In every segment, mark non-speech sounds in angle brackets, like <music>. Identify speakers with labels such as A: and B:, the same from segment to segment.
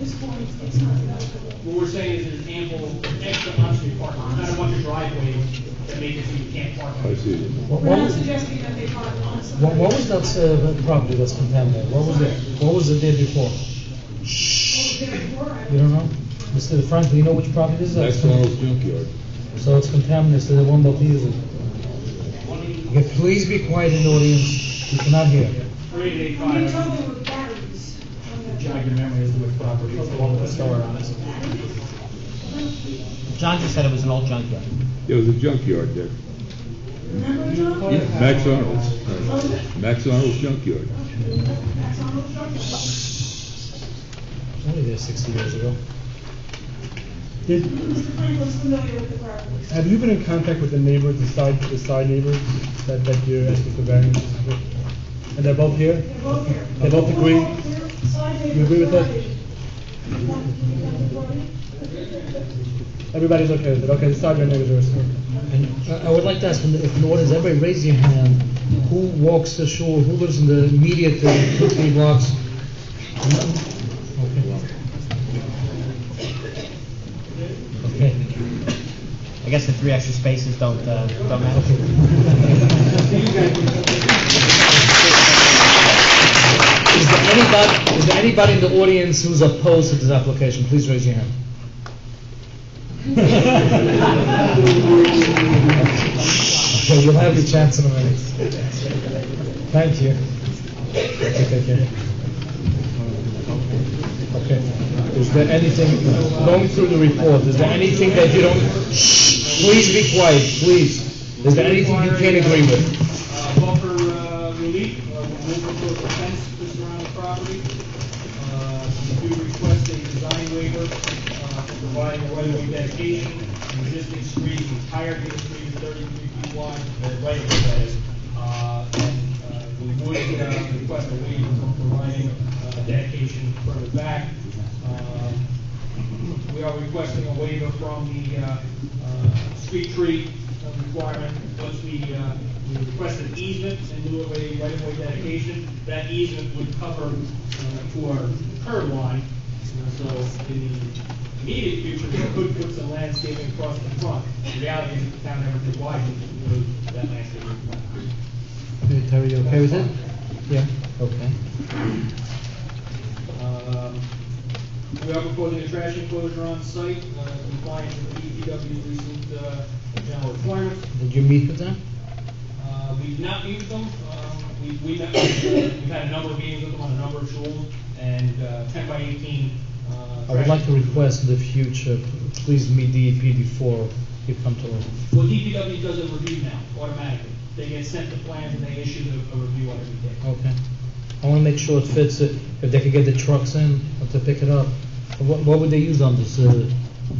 A: this one, it's- it's not enough.
B: What we're saying is there's ample extra on-street parking, not a bunch of driveways that make it so you can't park.
C: I see.
D: What,
A: We're
D: what
A: not
D: was,
A: suggesting that they park on some.
D: what, what was that uh, property that's condemned there? What was it? What was it there before?
A: Therefore, I
D: You don't know? Mr. Frank, do you know which property this is?
C: Next one was junkyard.
D: So it's contaminated, so the one that is it. Okay, please be quiet in the audience. You cannot hear.
B: Three eight
A: would, you
B: five,
A: told them with batteries. on the-
B: jog your memory as to which property, it's the one with the store on it.
E: John just said it was an old junkyard.
C: There was a junkyard there.
A: Remember, John?
C: Max Arnold's. Max Arnold's junkyard.
A: That's on the truck.
D: It's Only there sixty years ago.
F: Did,
A: Mr. Franklin's familiar with the property.
F: have you been in contact with the neighbors, the side, the side neighbors that, that you're asking for variances with? And they're both here?
A: They're both here.
F: They both agree?
A: They're side
F: You agree with that? Everybody's okay with it, okay, the side yard neighbors are respected.
D: And I, I would like to ask, in the, if in the audience, everybody raise your hand. Who walks the shore? Who lives in the immediate uh, two, three blocks? Okay. Okay.
E: I guess the three extra spaces don't, uh, don't matter.
D: Is there anybody, is there anybody in the audience who's opposed to this application? Please raise your hand. Okay, you'll have your chance in a minute. Thank you. Okay, thank you. Okay, is there anything, going through the report, is there anything that you don't, shh, please be quiet, please. Is there anything you can't agree with?
B: Uh, Buffer uh, relief, uh, we'll move to the fence to surround the property. Uh, We do request a design waiver uh, for providing a right-of-way dedication, The existing street, the entire of the street is thirty-three feet wide, uh, right of way that is. Uh, and, uh, We would uh, request a waiver for providing uh, dedication further back. Um, we are requesting a waiver from the uh, uh, street tree uh, requirement. Once we, uh, we request an easement in lieu of a right-of-way dedication, that easement would cover uh, to our curb line. Uh, So in the immediate future, we could put some landscaping across the front. The reality is the town never did widen that landscaping.
D: Terry, you okay with it? Yeah, okay.
B: Um, We are proposing a trash enclosure on site, uh, compliant with the DPW recent uh, general requirements.
D: Did you meet with them?
B: Uh, we've not met with them, um, we, we, met with, uh, <coughs> we've had a number of meetings with them on a number of schools, and, uh, ten by eighteen, uh.
D: I would like to request in the future, please meet DEP before you come to us.
B: Well, DPW does a review now, automatically, they get sent the plans and they issue the, a review on every day.
D: Okay. I want to make sure it fits, uh, if they could get the trucks in, or to pick it up. What, what would they use on this? uh,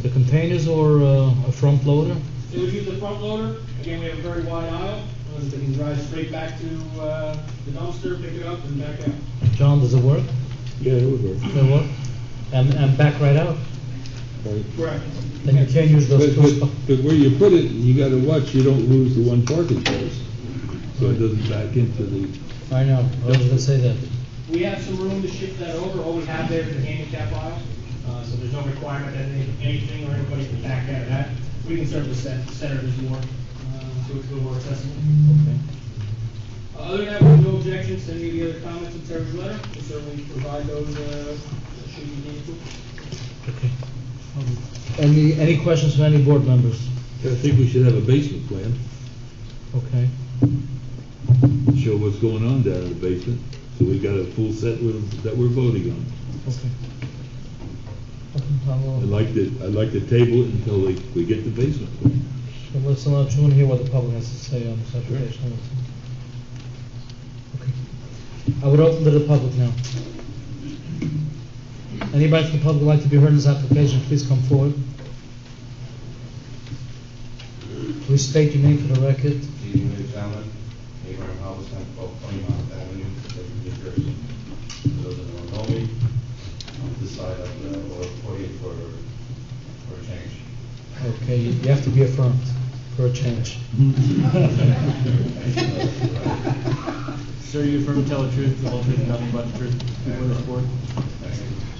D: The containers or uh, a front loader?
B: They would use the front loader, again, we have a very wide aisle, uh, they can drive straight back to, uh, the dumpster, pick it up and back out.
D: John, does it work?
C: Yeah, it was there.
D: Does it work? And, and back right out?
B: Correct.
D: Then you can't use those
C: But,
D: two
C: but,
D: spots.
C: but where you put it, you gotta watch you don't lose the one parking place. So it doesn't back into the,
D: I know, I was gonna say that.
B: We have some room to shift that over, all we have there is a handicap aisle, uh, so there's no requirement that any- anything or anybody can back out of that. We can certainly set, center this more, uh, so it's a little more accessible. Uh, Other than that, we have no objections, to any of the other comments in Terry's letter, we certainly provide those, uh, should you need to.
D: Okay. Any, any questions from any board members?
C: I think we should have a basement plan,
D: Okay.
C: show what's going on down in the basement, so we got a full set with, that we're voting on.
D: Okay. Okay, I will-
C: I'd like to, I'd like to table it until we, we get the basement plan.
D: Well, Let's allow, I want to hear what the public has to say on this application. Okay. I would open to the public now. Anybody from the public would like to be heard in this application, please come forward. Please state your name for the record.
G: Stephen Ray Allen, Abraham Halverson, twelve twenty Mount Avenue, Bedford, New Jersey. For Those that don't know me, on this side of the Royal Forty for, for a change.
D: Okay, you you have to be affirmed for a change.
H: Sir, you affirm to tell the truth, the whole truth, nothing but the truth, before this board?
G: Thank you.